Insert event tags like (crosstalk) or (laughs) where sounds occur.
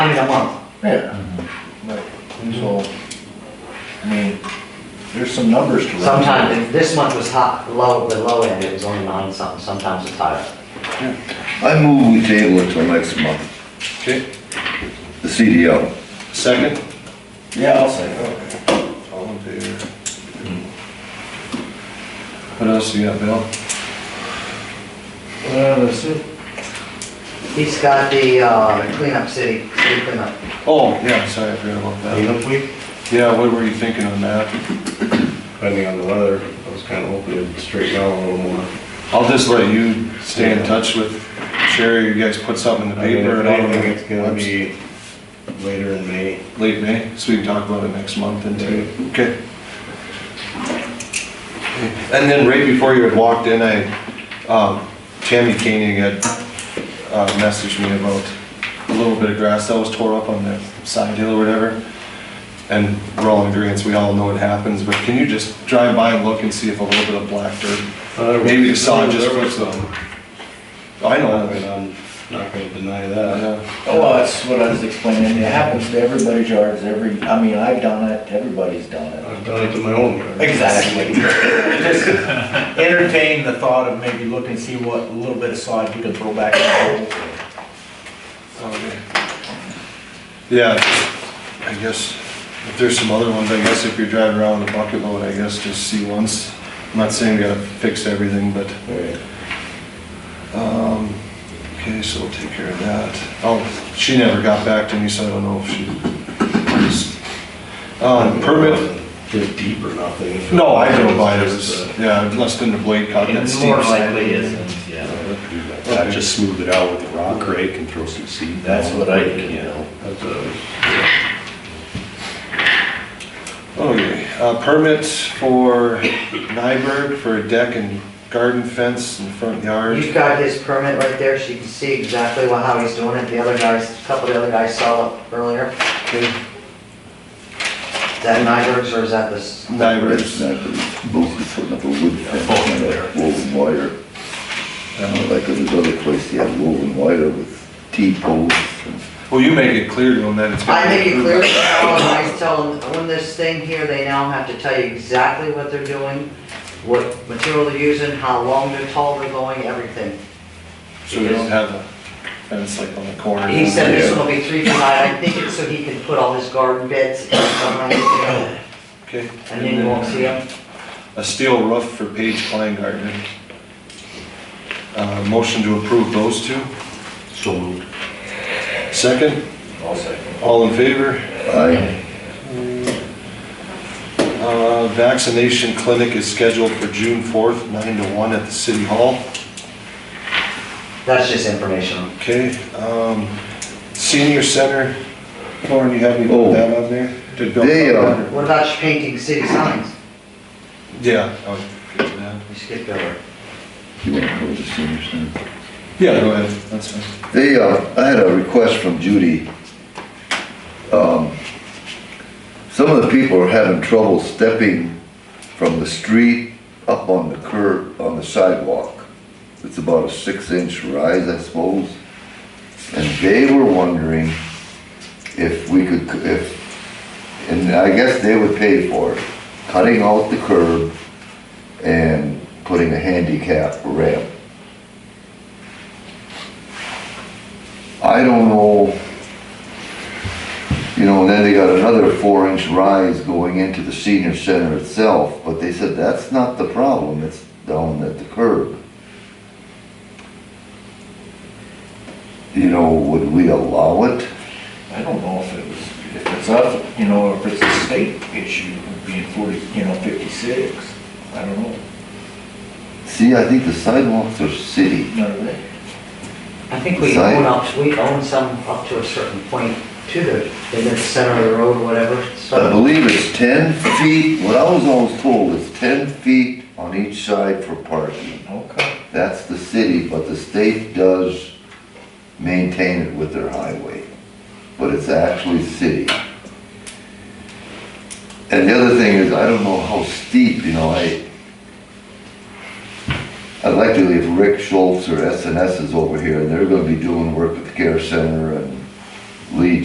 a month. Yeah. Right. So, I mean, there's some numbers to run. Sometimes, if this month was hot, low, the low end, it was only nine something, sometimes it's higher. I move we table it till next month, Okay, the CDL. second? Yeah, I'll say. Okay. All in favor? What else you got, Bill? Well, that's it. He's got the uh, cleanup city, city cleanup. Oh, yeah, sorry, I forgot about that. week? Yeah, what were you thinking on that? Depending on the weather, I was kind of hoping it'd straighten out a little more. I'll just let you stay in touch with Sherry, you guys put something in the I mean, paper if and all anything, it's gonna that. be later in May. Late May, so we can talk about it next month and two, okay? And then right before you had walked in, I, um, Tammy Koenig had, uh, messaged me about a little bit of grass that was tore up on the side hill or whatever. And we're all in agreeance, we all know what happens, but can you just drive by and look and see if a little bit of black dirt, maybe the saw just There put was some. some. I know, I mean, I'm not gonna deny that. yeah. Well, that's what I was explaining, it happens to everybody's yards, every, I mean, I've done it, everybody's done it. I've done it to my own yard. (laughs) Exactly. Just entertain the thought of maybe looking, see what little bit of sod you can throw back in the hole. Yeah, I guess, if there's some other ones, I guess if you're driving around with a bucket load, I guess just see once. I'm not saying we gotta fix everything, but, Right. um, okay, so we'll take care of that. Oh, she never got back to me, so I don't know if she. Um, permit, Just deep or nothing. no, I drove by, it was, yeah, less than the blade cut. and It steep more side. likely isn't, yeah. I just smooth it out with a rock rake and throw some seed. That's down what I quick, did. You know, that's a. Okay, uh, permits for Nyberg for a deck and garden fence in the front yard. You've got his permit right there, so you can see exactly what, how he's doing it. The other guys, a couple of the other guys saw it earlier. Okay. Is that Nyberg's or is that this? Nyberg's. Both is putting up a wood fence and a woven wire. Not Like at this other place, they had woven wire with T-posts and Well, you make it clear to them that it's. I make it clear, to all of them, I tell them, when this thing here, they now have to tell you exactly what they're doing, what material they're using, how long they're tall they're going, everything. So we don't have a fence like on the corner. He said this one will be three feet high, I think it's so he can put all his garden beds and stuff like that, Okay. and then you won't see them. A steel roof for Paige Kleingartner. Uh, motion to approve those two. So moved. Second, I'll second. all in favor? I, Uh, vaccination clinic is scheduled for June fourth, nine to one at the city hall. That's just informational. Okay, um, senior center, Lauren, you have me Oh. put that on there? Did Bill They, put uh, that or- What about painting city signs? Yeah. Oh, I'll get to that. You skipped over. you want to go to the senior center? Yeah, go ahead, that's fine. They, uh, I had a request from Judy. Um, Some of the people are having trouble stepping from the street up on the curb, on the sidewalk. It's about a six-inch rise, I suppose. And they were wondering if we could, if, and I guess they would pay for it, cutting out the curb and putting a handicap ramp I don't know, you know, and then they got another four inch rise going into the senior center itself, but they said that's not the problem, it's down at the curb. You know, would we allow it? I don't know if it was, if it's up, you know, if it's a state issue, being forty, you know, fifty-six, I don't know, See, I think the sidewalks are city. none of that. I think we Sign. own up, we own some up to a certain point to the, in the center of the road, whatever, I so. believe it's ten feet, what I was always told is ten feet on each side for parking. Okay. That's the city, but the state does maintain it with their highway, but it's actually city. And the other thing is, I don't know how steep, you know, I, I'd like to leave Rick Schultz or S and S is over here, and they're gonna be doing work at the care center and Lee